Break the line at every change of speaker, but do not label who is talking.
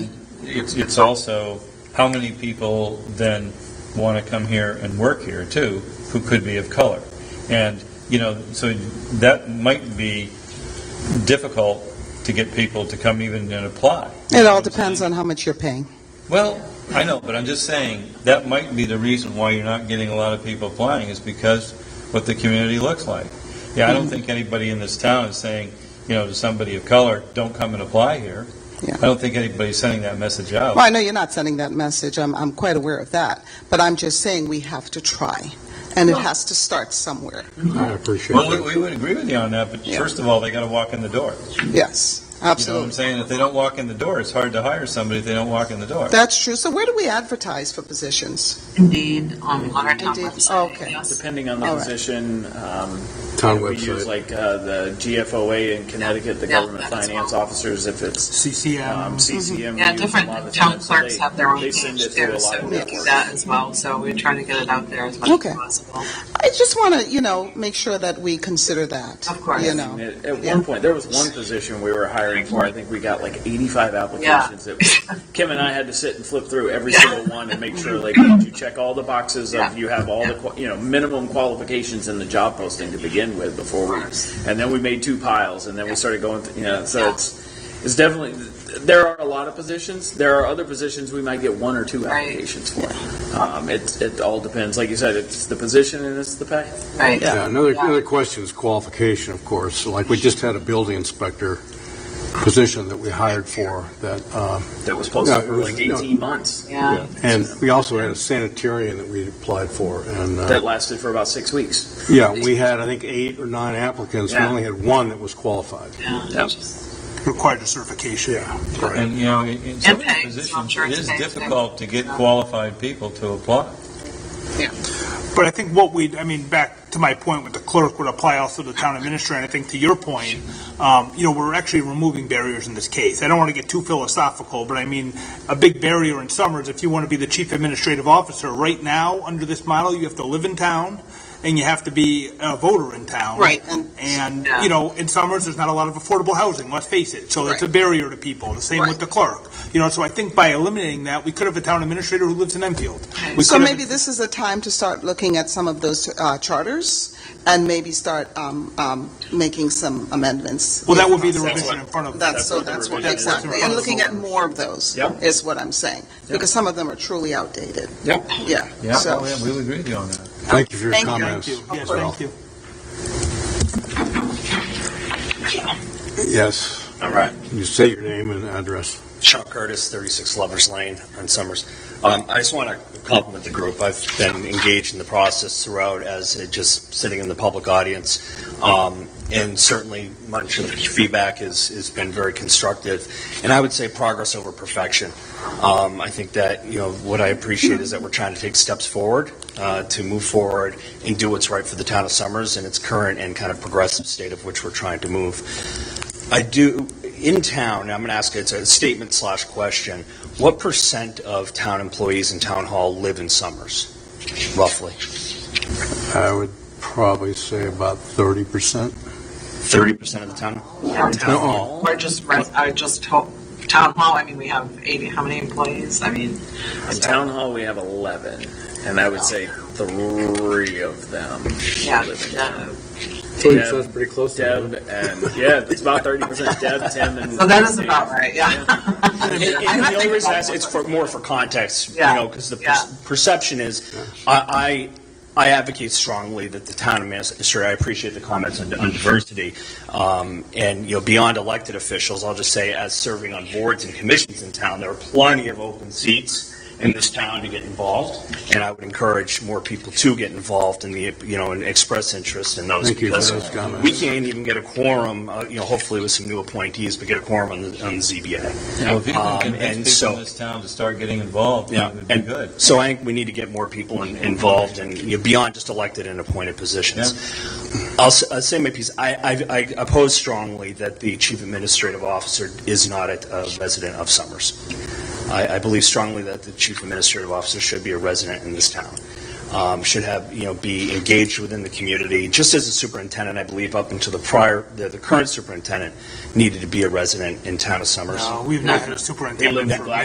it's, it's also, how many people then want to come here and work here too, who could be of color? And, you know, so that might be difficult to get people to come even and apply.
It all depends on how much you're paying.
Well, I know, but I'm just saying, that might be the reason why you're not getting a lot of people applying, is because what the community looks like. Yeah,
Mm-hmm.
I don't think anybody in this town is saying, you know, to somebody of color, don't come and apply here.
Yeah.
I don't think anybody's sending that message out.
Well, I know you're not sending that message. I'm, I'm quite aware of that. But I'm just saying we have to try, and it has to start somewhere.
I appreciate
Well, we-
that.
we would agree with you on that, but
Yeah.
first of all, they got to walk in the door. You
Yes,
know what I'm
absolutely.
saying? If they don't walk in the door, it's hard to hire somebody if they don't walk in the door.
That's true. So where do we advertise for positions?
Indeed, on on our town
Indeed.
website.
Okay.
yes.
Depending on the
All right.
position, um,
Town
if we use
website.
like uh, the GFOA in Connecticut, the
Yeah,
government
that's
finance
well.
officers, if it's um,
CCM.
CCM.
Yeah,
we use a lot of
different
the
town
time, so
clerks
they-
have their own
they send
page
it through a
too,
lot
so
of
we
networks.
do that as well, so we're trying to get it out there as much
Okay.
as possible.
I just want to, you know, make sure that we consider that.
Of course.
You
I
know,
mean, At at
Yeah.
one point, there was one position we were hiring for, I think we got like 85 applications. It was- Kim and I had to sit and flip through every single one and make sure, like, did you check all the boxes
Yeah.
of, you have all the, qua- you know, minimum qualifications in the job posting to begin with before we, and then we made two piles, and then we started going, th- you know, so
Yeah.
it's, it's definitely, there are a lot of positions. There are other positions we might get one or two
Right.
applications for. Um, It, it all depends. Like you said, it's the position and it's the pay.
Right.
Yeah, another,
Yeah.
another question is qualification, of course. So, Like, we just had a building inspector position that we hired for that, uh,
That was posted
No, it
for
was-
like
no.
18 months.
Yeah.
and we also had a sanitarian that we applied for. And,
That
uh,
lasted for about six weeks.
yeah, we had, I think, eight or nine applicants. We
Yeah.
only had one that was qualified.
Yeah.
Yep.
Required a certification.
Yeah, right.
And, you know, in- in some of
Okay,
these
so I'm
positions,
sure
it
it's
is
safe to-
difficult to get qualified people to apply.
But I think what we, I mean, back to my point with the clerk would apply also to the town administrator, and I think to your point, um, you know, we're actually removing barriers in this case. I don't want to get too philosophical, but I mean, a big barrier in Summers, if you want to be the chief administrative officer, right now, under this model, you have to live in town, and you have to be a voter in town.
Right, and-
And,
Yeah.
you know, in Summers, there's not a lot of affordable housing, let's face it, so that's a
Right.
barrier to people, the same
Right.
with the clerk. You know, so I think by eliminating that, we could have a town administrator who lives in Enfield. We
so
could have-
maybe this is a time to start looking at some of those uh, charters and maybe start um, um, making some amendments.
Well, that would be the
That's
revision in front of.
That's, so that's what, exactly, and looking at more of those
Yeah.
is what I'm saying, because some of them are truly outdated.
Yeah.
Yeah.
Yeah,
So-
oh, yeah, we would agree with you on that.
Thank you for your
Thank you.
comments.
Thank you, yes,
Well,
thank you.
Yes,
All right.
you say your name and address.
Sean Curtis, 36 Lovers Lane on Summers. Um, I just want to compliment the group. I've been engaged in the process throughout as it just sitting in the public audience. Um, and certainly much of the feedback is, has been very constructive. And I would say progress over perfection. Um, I think that, you know, what I appreciate is that we're trying to take steps forward, uh, to move forward and do what's right for the town of Summers in its current and kind of progressive state of which we're trying to move. I do, in town, I'm going to ask, it's a statement slash question, what percent of town employees in town hall live in Summers, roughly?
I would probably say about 30%.
30% of the town?
Town
No.
hall. Or just, res- I just, hope- town hall, I mean, we have eighty, how many employees? I mean.
In town hall, we have 11, and I would say three of them.
Yeah,
live in
yeah.
town.
Dave
sounds
pretty close
Deb and, yeah, it's about 30%. Deb, Tim, and.
So that is about right, yeah.
And- and- and The only reason I ask, it's for, more for context, you
Yeah.
know, because the
Yeah.
per- perception is, I, I, I advocate strongly that the town administrator, I appreciate the comments on, on diversity, um, and, you know, beyond elected officials, I'll just say, as serving on boards and commissions in town, there are plenty of open seats in this town to get involved, and I would encourage more people to get involved in the, you know, and express interest in those.
Thank you for
because
those comments.
We can't even get a quorum, uh, you know, hopefully with some new appointees, but get a quorum on the, on the ZBA.
Well, if you can
Um, and
convince people
so-
in this town to start getting involved,
Yeah,
it would be
and
good.
so I think we need to get more people in- involved and you know, beyond just elected and appointed positions. I'll, s- I'll say my piece. I, I, I oppose strongly that the chief administrative officer is not a, a resident of Summers. I, I believe strongly that the chief administrative officer should be a resident in this town. Um, should have you know be engaged within the community, just as the superintendent. I believe up until the prior, the, the current superintendent needed to be a resident in town of Summers.
No, we've not had a superintendent for.